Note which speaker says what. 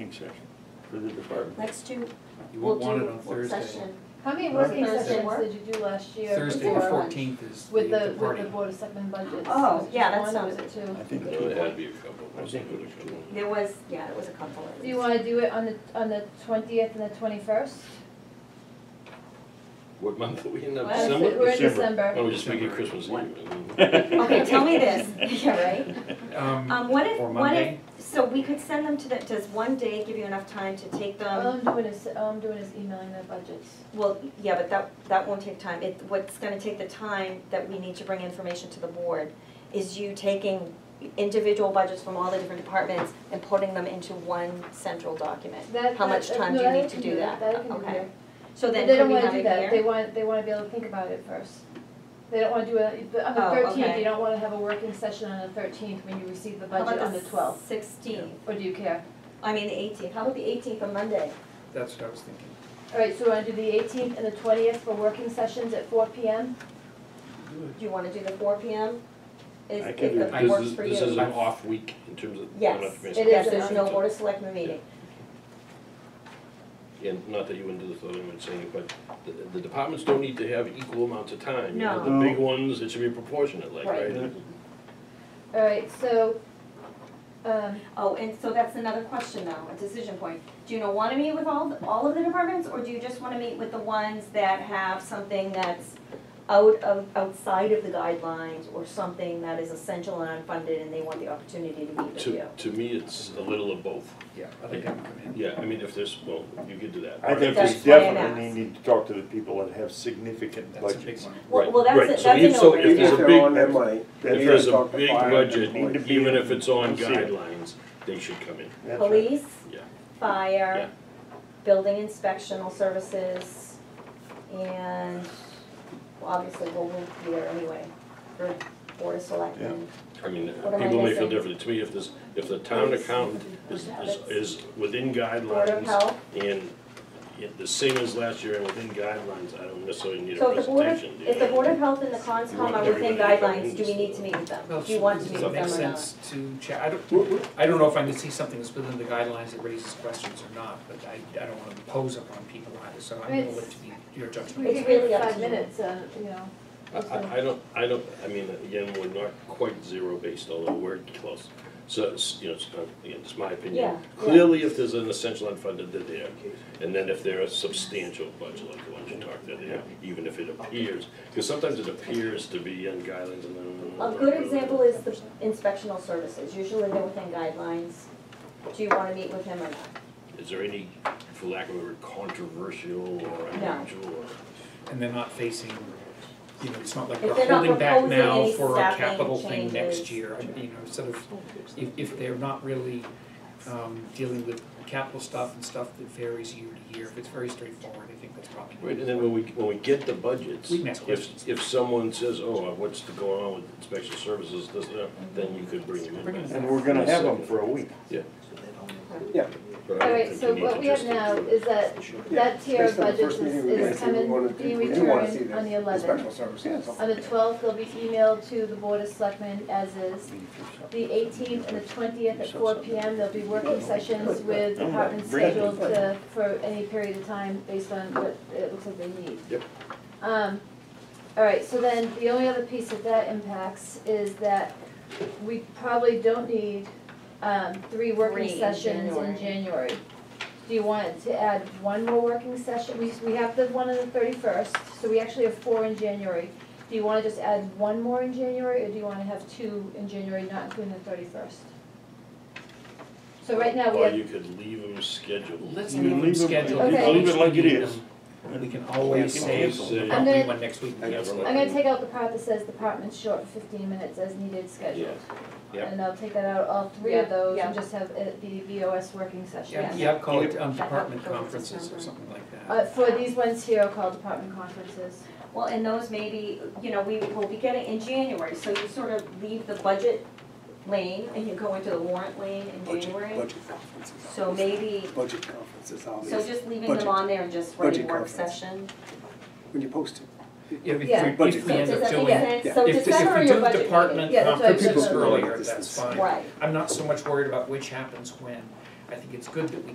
Speaker 1: working session for the department.
Speaker 2: Let's do,
Speaker 3: You
Speaker 2: we'll
Speaker 3: won't
Speaker 2: do
Speaker 3: want it on
Speaker 2: work
Speaker 3: Thursday.
Speaker 2: session.
Speaker 4: How many
Speaker 1: Well,
Speaker 4: working
Speaker 2: Thursday
Speaker 4: sessions
Speaker 2: work?
Speaker 4: did you do last year?
Speaker 3: Thursday, the
Speaker 4: before-
Speaker 3: fourteenth is the
Speaker 4: With
Speaker 3: the
Speaker 4: the, with
Speaker 3: party.
Speaker 4: the Board of Selectmen budgets?
Speaker 2: Oh,
Speaker 4: Was it
Speaker 2: yeah, that
Speaker 4: just one or was
Speaker 2: sounds-
Speaker 4: it two?
Speaker 1: I think
Speaker 5: There
Speaker 1: it
Speaker 5: would
Speaker 1: was,
Speaker 5: have to be a couple,
Speaker 1: I think it was two.
Speaker 2: There was, yeah, it was a couple of
Speaker 4: Do you
Speaker 2: these.
Speaker 4: wanna do it on the, on the twentieth and the twenty-first?
Speaker 5: What month are we in,
Speaker 1: Well,
Speaker 5: December?
Speaker 4: We're in
Speaker 1: December.
Speaker 5: Why
Speaker 4: December.
Speaker 5: don't we just make it Christmas Eve? and then-
Speaker 2: Okay, tell me this, yeah, right?
Speaker 3: Um,
Speaker 2: Um, what if,
Speaker 3: Or
Speaker 2: what if,
Speaker 3: Monday?
Speaker 2: so we could send them to the, does one day give you enough time to take
Speaker 4: All
Speaker 2: them?
Speaker 4: I'm doing is, all I'm doing is emailing the budgets.
Speaker 2: Well, yeah, but that, that won't take time. It, what's gonna take the time that we need to bring information to the board is you taking individual budgets from all the different departments and putting them into one central document.
Speaker 4: That-
Speaker 2: How
Speaker 4: that-
Speaker 2: much
Speaker 4: that- uh,
Speaker 2: time
Speaker 4: no,
Speaker 2: do you
Speaker 4: I
Speaker 2: need
Speaker 4: can
Speaker 2: to do that?
Speaker 4: That I can do
Speaker 2: Okay.
Speaker 4: that.
Speaker 2: So
Speaker 4: But
Speaker 2: then
Speaker 4: They
Speaker 2: could
Speaker 4: don't
Speaker 2: we
Speaker 4: wanna
Speaker 2: have it
Speaker 4: do
Speaker 2: here?
Speaker 4: that, they want, they wanna be able to think about it first. They don't wanna do it, on
Speaker 2: Oh,
Speaker 4: the thirteenth,
Speaker 2: okay.
Speaker 4: they don't wanna have a working session on the thirteenth when you receive the
Speaker 2: How
Speaker 4: budget
Speaker 2: about
Speaker 4: on the twelfth,
Speaker 2: Sixteenth,
Speaker 4: or do you care?
Speaker 2: I mean the eighteenth, how about the eighteenth on Monday?
Speaker 3: that's what I was thinking.
Speaker 4: All right, so we wanna do the eighteenth and the twentieth for working sessions at four P M?
Speaker 2: Do you wanna do the four P M? Is,
Speaker 1: I
Speaker 2: if
Speaker 1: can do it.
Speaker 2: that
Speaker 3: This
Speaker 2: works
Speaker 5: is-
Speaker 2: for you?
Speaker 5: This is an off week in terms of. we don't have to miss
Speaker 4: It
Speaker 2: Yes,
Speaker 4: is
Speaker 2: yes,
Speaker 4: an
Speaker 2: there's no
Speaker 5: off-
Speaker 2: board of selectmen meeting.
Speaker 5: And not that you wouldn't do this, I wouldn't say it, but the, the departments don't need to have equal amounts of time. You know,
Speaker 1: No.
Speaker 5: The big ones, it should be proportionate, like,
Speaker 2: Right.
Speaker 5: right?
Speaker 4: All right, so, um,
Speaker 2: Oh, and so that's another question now, a decision point. Do you know, wanna meet with all, the- all of the departments, or do you just wanna meet with the ones that have something that's out of, outside of the guidelines, or something that is essential and unfunded, and they want the opportunity to meet with you?
Speaker 5: To, to me, it's a little of both.
Speaker 3: Yeah, I think I can come in.
Speaker 5: Yeah, I mean, if there's, well, you could do that.
Speaker 1: I think we
Speaker 2: That's why I'm
Speaker 1: definitely
Speaker 2: asked.
Speaker 1: need to talk to the people that have significant
Speaker 3: That's a big
Speaker 1: budgets.
Speaker 3: one.
Speaker 2: Well, well, that's
Speaker 5: Right,
Speaker 2: a-
Speaker 5: so
Speaker 2: that's a
Speaker 5: if- so
Speaker 2: no-brainer.
Speaker 5: if there's a
Speaker 6: they're
Speaker 5: big-
Speaker 6: on their money,
Speaker 1: That's
Speaker 5: If there's
Speaker 1: right.
Speaker 5: a
Speaker 6: Talk to
Speaker 5: big
Speaker 6: fire,
Speaker 5: budget,
Speaker 1: need to be
Speaker 5: even
Speaker 1: in-
Speaker 5: if it's on
Speaker 1: and see it.
Speaker 5: guidelines, they should come in.
Speaker 1: That's right.
Speaker 2: Police,
Speaker 5: Yeah.
Speaker 2: fire, building inspectional services, and well, obviously we'll move here anyway, for board of selectmen.
Speaker 5: I mean,
Speaker 2: am I
Speaker 5: people may feel
Speaker 2: missing?
Speaker 5: differently. To me, if this, if the town accountant is, is, is within
Speaker 2: Board of
Speaker 5: guidelines
Speaker 2: health,
Speaker 5: and yet the same as last year and within guidelines, I don't necessarily need a
Speaker 2: so if the board of,
Speaker 5: presentation. do
Speaker 2: if the
Speaker 5: you?
Speaker 2: board of health and the
Speaker 5: You
Speaker 2: conscom
Speaker 5: want
Speaker 2: are within
Speaker 5: everybody to come
Speaker 2: guidelines,
Speaker 5: in,
Speaker 2: do we
Speaker 5: so-
Speaker 2: need to meet with them?
Speaker 3: Well,
Speaker 2: Do you want to
Speaker 3: does
Speaker 2: meet
Speaker 3: it
Speaker 2: with
Speaker 3: make
Speaker 2: them or not?
Speaker 3: sense to chat, I don't, I don't know if I can see something that's within the guidelines that raises questions or not, but I, I don't wanna impose upon people either, so I'm gonna let it be your judgment.
Speaker 4: we
Speaker 2: It's
Speaker 4: could
Speaker 2: really
Speaker 4: wait
Speaker 2: up to
Speaker 4: five
Speaker 2: you.
Speaker 4: minutes, uh, you know.
Speaker 5: I, I- I don't, I don't, I mean, again, we're not quite zero based, although we're close. So, it's, you know, it's, not- again, it's my
Speaker 2: Yeah,
Speaker 5: opinion.
Speaker 2: yeah.
Speaker 5: Clearly, if there's an essential unfunded, they're there. And then if they're a substantial budget, like the ones you talked, they're there, even if it appears. Because sometimes it appears to be on guidelines and then.
Speaker 2: A good example is the inspectional services, usually they're within guidelines. Do you wanna meet with him or not?
Speaker 5: Is there any, for lack of a word, controversial or unusual or?
Speaker 3: And they're not facing, you know, it's not like
Speaker 2: If
Speaker 3: we're
Speaker 2: they're not
Speaker 3: holding back
Speaker 2: proposing
Speaker 3: now
Speaker 2: any
Speaker 3: for a
Speaker 2: staffing
Speaker 3: capital thing next
Speaker 2: changes.
Speaker 3: year, I mean, you know, sort of, if, if they're not really, um, dealing with capital stuff and stuff that varies year to year, if it's very straightforward, I think that's probably.
Speaker 5: Right, and then when we, when we get the budgets,
Speaker 3: We can ask questions.
Speaker 5: if, if someone says, oh, what's going on with inspection services, this, that, then you could bring them
Speaker 3: Bring 'em
Speaker 5: in.
Speaker 3: in.
Speaker 1: And we're gonna have them for a week.
Speaker 6: Yeah.
Speaker 5: But I
Speaker 4: All
Speaker 5: don't
Speaker 4: right,
Speaker 5: think
Speaker 4: so
Speaker 5: you need
Speaker 4: what
Speaker 5: to
Speaker 4: we have
Speaker 5: just-
Speaker 4: now is that, that tier of
Speaker 6: Based on the
Speaker 4: budgets
Speaker 6: first
Speaker 4: is,
Speaker 6: meeting we
Speaker 4: is
Speaker 6: went to, we
Speaker 4: coming,
Speaker 6: wanted to-
Speaker 4: being
Speaker 6: we do wanna see
Speaker 4: returned
Speaker 6: the
Speaker 4: on the eleventh.
Speaker 6: Special services.
Speaker 4: On the twelfth, they'll be emailed to the Board of Selectmen as is. The eighteenth and the twentieth at four P M, there'll be working sessions with departments scheduled to, for any period of time based on what it looks like they need.
Speaker 5: Yep.
Speaker 4: Um, all right, so then the only other piece that that impacts is that we probably don't need, um, three
Speaker 2: Three
Speaker 4: working
Speaker 2: in
Speaker 4: sessions in
Speaker 2: January.
Speaker 4: January. Do you want to add one more working session? We, we have the one on the thirty-first, so we actually have four in January. Do you wanna just add one more in January, or do you wanna have two in January, not including the thirty-first? So right now, we
Speaker 5: Or
Speaker 4: have,
Speaker 5: you could leave them scheduled.
Speaker 3: Let's
Speaker 1: You
Speaker 3: leave them
Speaker 1: leave 'em-
Speaker 3: scheduled.
Speaker 4: you
Speaker 3: If
Speaker 4: leave
Speaker 3: we
Speaker 1: it like it
Speaker 3: need
Speaker 1: is.
Speaker 3: them, We can always
Speaker 1: You
Speaker 3: say,
Speaker 1: can
Speaker 5: always say-
Speaker 3: we
Speaker 4: I'm
Speaker 3: don't need
Speaker 4: gonna-
Speaker 3: one next week, we
Speaker 5: I'm
Speaker 3: have
Speaker 5: gonna-
Speaker 4: I'm gonna take out the part that says department's short fifteen minutes as needed
Speaker 5: Yeah.
Speaker 4: schedule.
Speaker 5: Yeah.
Speaker 4: And I'll take that out, all three of
Speaker 2: Yeah,
Speaker 4: those, and
Speaker 2: yeah.
Speaker 4: just have it be VOS working session.
Speaker 3: Yeah, yeah, call it um, department conferences or something like that.
Speaker 4: Uh, for these ones here, I'll call department conferences.
Speaker 2: Well, and those maybe, you know, we will be getting in January, so you sort of leave the budget lane and you go into the warrant lane in
Speaker 6: Budget,
Speaker 2: January.
Speaker 6: budget conferences.
Speaker 2: So maybe,
Speaker 6: Budget conferences, all
Speaker 2: so
Speaker 6: these,
Speaker 2: just leaving them
Speaker 6: Budget.
Speaker 2: on there and just writing
Speaker 6: Budget
Speaker 2: work
Speaker 6: conference.
Speaker 2: session.
Speaker 6: when you post it.
Speaker 3: If we,
Speaker 4: yeah.
Speaker 3: if we if we
Speaker 2: So
Speaker 3: end
Speaker 2: does that
Speaker 3: up
Speaker 2: make
Speaker 3: doing, if,
Speaker 2: sense?
Speaker 6: yeah.
Speaker 2: So
Speaker 3: if
Speaker 2: December
Speaker 3: we
Speaker 2: your
Speaker 3: do
Speaker 2: budget meeting.
Speaker 3: department
Speaker 4: Yeah, that's what I was
Speaker 3: conferences
Speaker 4: saying.
Speaker 3: earlier,
Speaker 6: This
Speaker 3: that's
Speaker 6: is-
Speaker 3: fine.
Speaker 2: Right.
Speaker 3: I'm not so much worried about which happens when. I think it's good that we